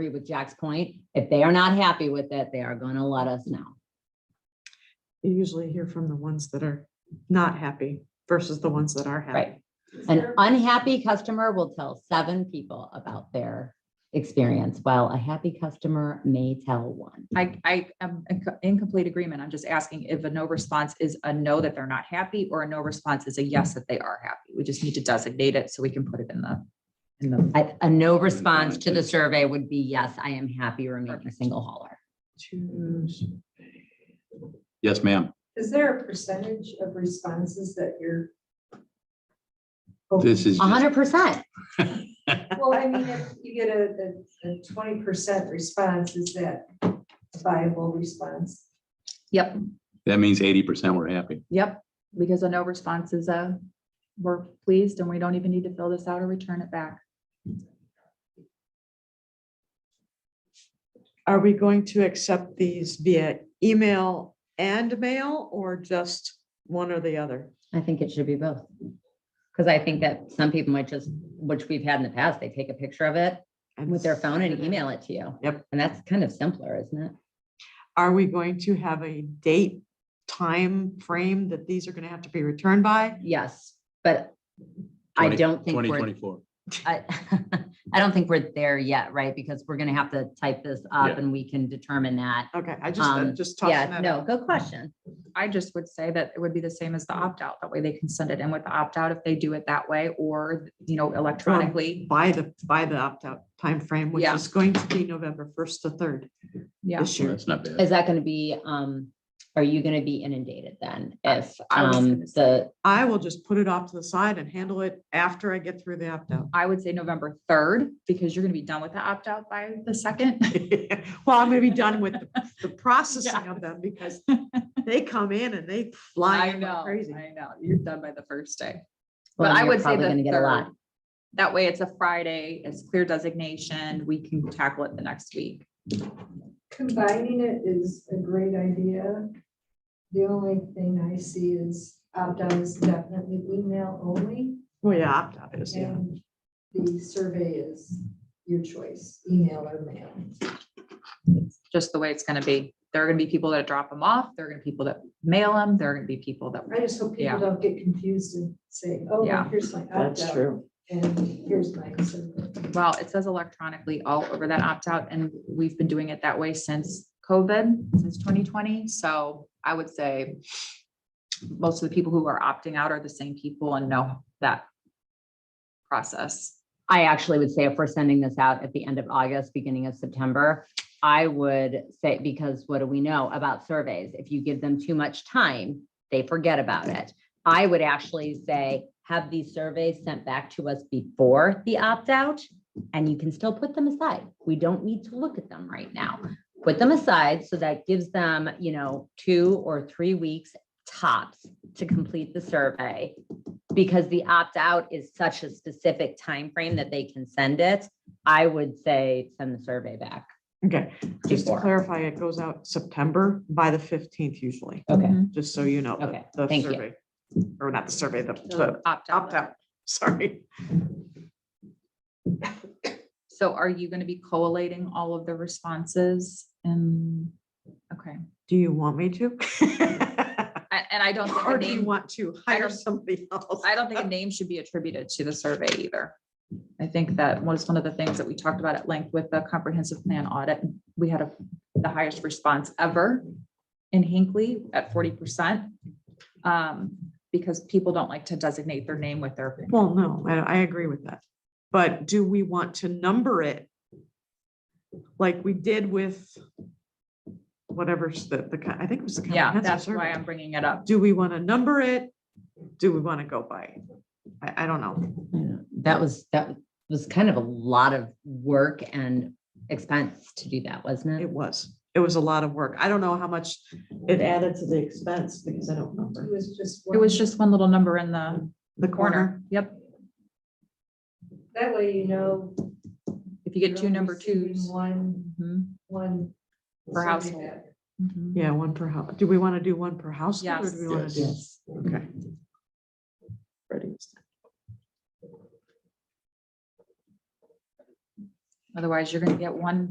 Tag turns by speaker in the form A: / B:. A: agree with Jack's point. If they are not happy with it, they are gonna let us know.
B: You usually hear from the ones that are not happy versus the ones that are happy.
A: Right. An unhappy customer will tell seven people about their experience, while a happy customer may tell one.
C: I, I am in co- in complete agreement. I'm just asking if a no response is a no that they're not happy or a no response is a yes that they are happy. We just need to designate it so we can put it in the, in the,
A: A, a no response to the survey would be, yes, I am happy remaining
C: Perfect.
A: single hauler.
B: Choose.
D: Yes, ma'am.
E: Is there a percentage of responses that you're?
D: This is
A: A
D: just
A: hundred percent.
E: Well, I mean, if you get a, twenty percent response, is that a viable response?
C: yep,
D: that means eighty percent were happy.
C: yep. Because a no response is a, we're pleased and we don't even need to fill this out or return it back.
B: Are we going to accept these via email and mail or just one or the other?
A: I think it should be both. Cause I think that some people might just, which we've had in the past, they take a picture of it
B: And
A: with their phone and email it to you.
B: Yep.
A: And that's kind of simpler, isn't it?
B: Are we going to have a date, time frame that these are going to have to be returned by?
A: Yes, but I
D: 20
A: don't think
D: Twenty
A: we're
D: twenty-four.
A: I, I don't think we're there yet, right? Because we're gonna have to type this up
D: Yeah.
A: and we can determine that.
B: Okay, I
A: Um,
B: just, just tossing
A: Yeah,
B: that
A: no,
B: out.
A: good question.
C: I just would say that it would be the same as the opt-out. That way they can send it in with the opt-out if they do it that way or, you know, electronically.
B: By the, by the opt-out timeframe, which
C: Yeah.
B: is going to be November first to third
C: Yeah.
B: this year.
D: That's not bad.
A: Is that gonna be, um, are you gonna be inundated then if,
C: I was
A: um,
C: gonna say-
A: the,
B: I will just put it off to the side and handle it after I get through the opt-out.
C: I would say November third, because you're gonna be done with the opt-out by the second.
B: Well, I'm gonna be done with the- the processing of them because they come in and they fly
C: I
B: in like
C: know,
B: crazy.
C: I know. You're done by the first day.
A: well,
C: But I
A: you're
C: would say
A: probably gonna
C: the
A: get a lot.
C: third. That way it's a Friday, it's clear designation. We can tackle it the next week.
E: Combining it is a great idea. The only thing I see is opt-out is definitely email only,
B: Well, yeah, opt-out is, yeah.
E: and the survey is your choice, email or mail.
C: Just the way it's gonna be. There are gonna be people that drop them off. There are gonna be people that mail them. There are gonna be people that,
E: I just hope
C: Yeah.
E: people don't get confused and say, oh,
C: Yeah.
E: here's my opt-out,
B: true.
E: and here's my survey.
C: well, it says electronically all over that opt-out and we've been doing it that way since COVID, since twenty twenty. So I would say most of the people who are opting out are the same people and know that process.
A: I actually would say if we're sending this out at the end of August, beginning of September, I would say, because what do we know about surveys? If you give them too much time, they forget about it. I would actually say, have these surveys sent back to us before the opt-out, and you can still put them aside. We don't need to look at them right now. Put them aside, so that gives them, you know, two or three weeks tops to complete the survey because the opt-out is such a specific time frame that they can send it, I would say send the survey back.
B: Okay, just to
A: Before.
B: clarify, it goes out September by the fifteenth usually,
A: Okay.
B: just so you know. the-
A: Okay,
B: the
A: thank you.
B: survey, Or not the survey, the- the
C: Opt-out.
B: opt-out, sorry.
C: So are you gonna be collating all of the responses and, okay,
B: Do you want me to?
C: I- and I don't think a
B: Or do you
C: name,
B: want to hire
C: don't-
B: somebody else?
C: I don't think a name should be attributed to the survey either. I think that was one of the things that we talked about at length with the comprehensive plan audit. We had a- the highest response ever in Hinckley at forty percent. um, Because people don't like to designate their name with their,
B: Well, no, I, I agree with that. But do we want to number it? Like we did with whatever's the, the, co- I think it was the.
C: yeah,
B: comprehensive
C: that's why
B: survey.
C: I'm bringing it up.
B: Do we want to number it? Do we want to go by? it? I, I don't know.
A: That was, that was kind of a lot of work and expense to do that, wasn't
B: It
A: it?
B: was, it was a lot of work. I don't know how much it added to the expense because I don't
E: It
B: remember.
E: was just.
C: It was
E: one-
C: just one little number in the
B: The corner,
C: corner. Yep.
E: That way you know.
C: If you get two
E: you're
C: number
E: receiving
C: twos.
E: One,
C: Mhm,
E: one.
C: Per
E: survey
C: household.
E: back. Mm-hmm.
C: mhm.
B: yeah, one per house. Do we want to do one per house? Or do we want to do?
C: Yes.
B: Okay. Ready?
C: Otherwise, you're gonna get one